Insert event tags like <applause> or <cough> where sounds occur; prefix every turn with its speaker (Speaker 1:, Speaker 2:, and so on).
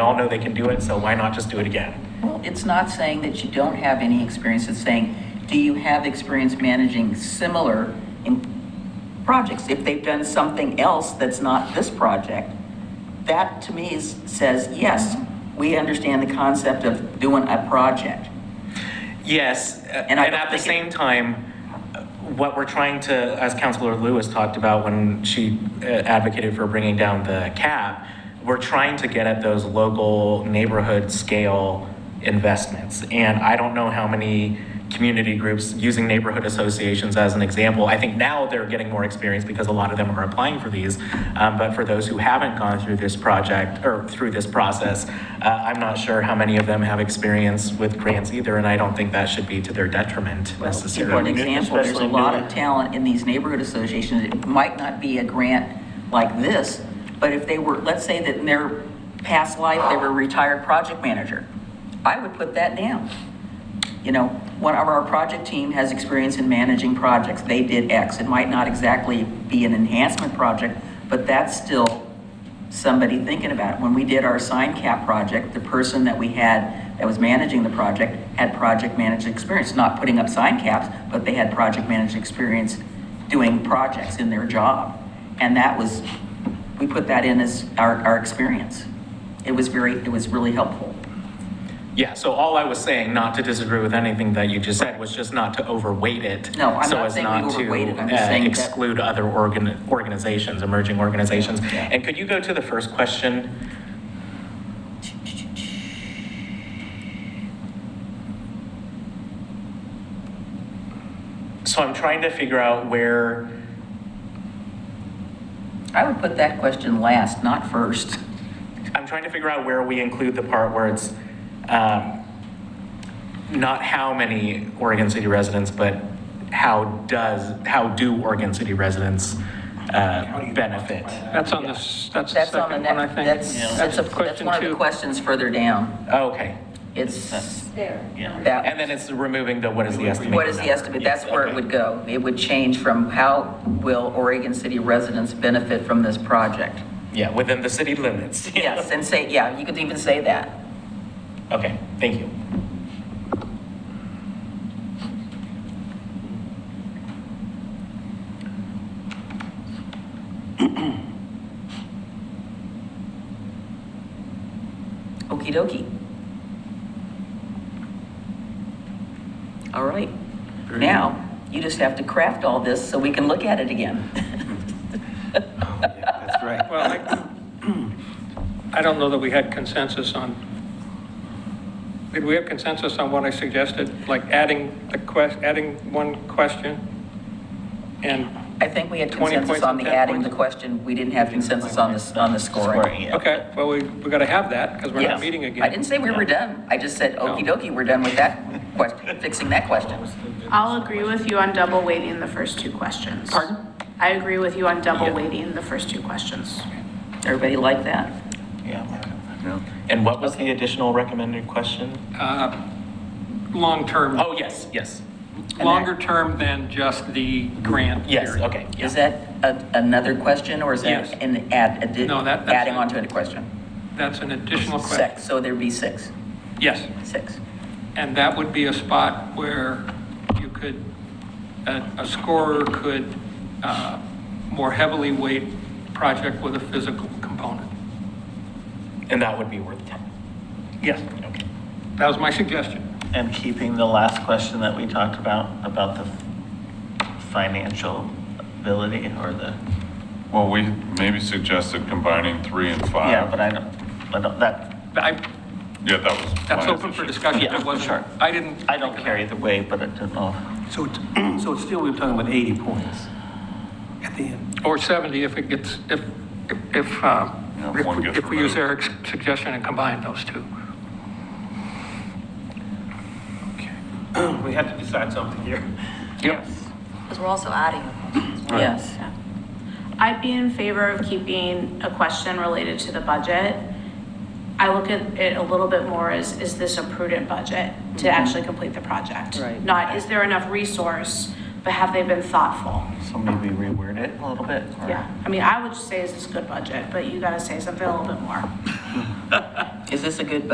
Speaker 1: They all know they can do it, so why not just do it again?
Speaker 2: Well, it's not saying that you don't have any experience, it's saying, do you have experience managing similar in projects? If they've done something else that's not this project, that to me is, says, yes, we understand the concept of doing a project.
Speaker 1: Yes, a- and
Speaker 2: And I don't
Speaker 1: at the
Speaker 2: think
Speaker 1: same
Speaker 2: it-
Speaker 1: time, uh, what we're trying to, as Councilor Lewis talked about when she uh, advocated for bringing down the cap, we're trying to get at those local neighborhood scale investments. And I don't know how many community groups, using neighborhood associations as an example, I think now they're getting more experience because a lot of them are applying for these. Um, But for those who haven't gone through this project or through this process, uh, I'm not sure how many of them have experience with grants either, and I don't think that should be to their detriment
Speaker 2: Well, For an
Speaker 1: necessarily.
Speaker 2: example, there's a
Speaker 3: Especially
Speaker 2: lot
Speaker 3: new-
Speaker 2: of talent in these neighborhood associations. It might not be a grant like this, but if they were, let's say that in their past life, they were a retired project manager, I would put that down. You know, one of our project team has experience in managing projects. They did X. It might not exactly be an enhancement project, but that's still somebody thinking about it. When we did our sign cap project, the person that we had that was managing the project had project managed experience, not putting up sign caps, but they had project managed experience doing projects in their job. And that was, we put that in as our, our experience. It was very, it was really helpful.
Speaker 1: Yeah, so all I was saying, not to disagree with anything that you just said, was just not to overweight it.
Speaker 2: No, I'm
Speaker 1: so
Speaker 2: not
Speaker 1: as
Speaker 2: saying we
Speaker 1: not to,
Speaker 2: overweight it. I'm
Speaker 1: uh,
Speaker 2: just saying that-
Speaker 1: Exclude other organ, organizations, emerging organizations. And could you go to the first question? So I'm trying to figure out where,
Speaker 2: I would put that question last, not first.
Speaker 1: I'm trying to figure out where we include the part where it's um, not how many Oregon City residents, but how does, how do Oregon City residents uh, benefit?
Speaker 3: That's on this, that's the
Speaker 2: That's on the
Speaker 3: second one, I
Speaker 2: next,
Speaker 3: think.
Speaker 2: that's, that's a- that's
Speaker 3: question
Speaker 2: one of the
Speaker 3: two.
Speaker 2: questions further down.
Speaker 1: Okay.
Speaker 2: It's
Speaker 4: Yeah.
Speaker 2: that.
Speaker 1: And then it's removing the what is the estimate?
Speaker 2: What is the estimate? That's where it would go. It would change from how will Oregon City residents benefit from this project?
Speaker 1: Yeah, within the city limits.
Speaker 2: Yes, and say, yeah, you could even say that.
Speaker 1: <laughs> Okay, thank you.
Speaker 2: Okey dokey. All right. Now, you just have to craft all this so we can look at it
Speaker 5: <laughs>
Speaker 2: again.
Speaker 5: Oh, That's right.
Speaker 3: Well, I- I don't know that we had consensus on, did we have consensus on what I suggested? Like adding the quest, adding one question? And,
Speaker 2: I think we had
Speaker 3: 20
Speaker 2: consensus
Speaker 3: points
Speaker 2: on
Speaker 3: and
Speaker 2: the
Speaker 3: 10
Speaker 2: adding
Speaker 3: points.
Speaker 2: the question. We didn't have consensus on this, on the scoring.
Speaker 3: okay, well, we, we got to have that because we're
Speaker 2: Yes.
Speaker 3: not meeting again.
Speaker 2: I didn't say we were done. I just said, okey dokey, we're done with that question, fixing that question.
Speaker 4: I'll agree with you on double weighting the first two questions.
Speaker 2: Pardon?
Speaker 4: I agree with you on double weighting the first two questions.
Speaker 2: Everybody like that?
Speaker 1: And what was the additional recommended question?
Speaker 3: Uh, Long-term,
Speaker 1: Oh, yes, yes,
Speaker 3: longer term than just the grant
Speaker 1: yes,
Speaker 3: period.
Speaker 1: okay. yeah.
Speaker 2: Is that a- another question, or is
Speaker 3: Yes.
Speaker 2: that an add, addi-
Speaker 3: No, that- that's
Speaker 2: adding
Speaker 3: it.
Speaker 2: on to a question?
Speaker 3: That's an additional question.
Speaker 2: Six, so there'd be six,
Speaker 3: Yes.
Speaker 2: six.
Speaker 3: And that would be a spot where you could, a a scorer could uh, more heavily weight project with a physical component.
Speaker 1: And that would be worth 10.
Speaker 3: Yes.
Speaker 1: Okay.
Speaker 3: That was my suggestion.
Speaker 5: And keeping the last question that we talked about, about the financial ability or the,
Speaker 6: Well, we maybe suggested combining three and five.
Speaker 5: yeah, but I don't, I don't, that,
Speaker 3: But I-
Speaker 6: Yeah, that was.
Speaker 3: That's
Speaker 6: my
Speaker 3: open for
Speaker 6: issue.
Speaker 3: discussion.
Speaker 5: Yeah,
Speaker 3: It
Speaker 5: sure.
Speaker 3: wasn't, I didn't.
Speaker 5: I don't care either way, but I don't know.
Speaker 7: So it's, so it's still, we're talking about 80 points at the end.
Speaker 3: Or 70 if it gets, if, if- if, uh,
Speaker 6: Yeah, if one gets
Speaker 3: if we use
Speaker 6: removed.
Speaker 3: Eric's suggestion and combine those two.
Speaker 5: We have to decide something here.
Speaker 3: Yes.
Speaker 8: Because we're also adding a question as well.
Speaker 2: Yes.
Speaker 4: I'd be in favor of keeping a question related to the budget. I look at it a little bit more as, is this a prudent budget to actually complete the project?
Speaker 2: Mm-hmm. Right.
Speaker 4: Not, is there enough resource, but have they been thoughtful?
Speaker 5: So maybe reword it a little bit? or-
Speaker 4: Yeah, I mean, I would say is this a good budget, but you gotta say something a little bit more.
Speaker 2: Is this a good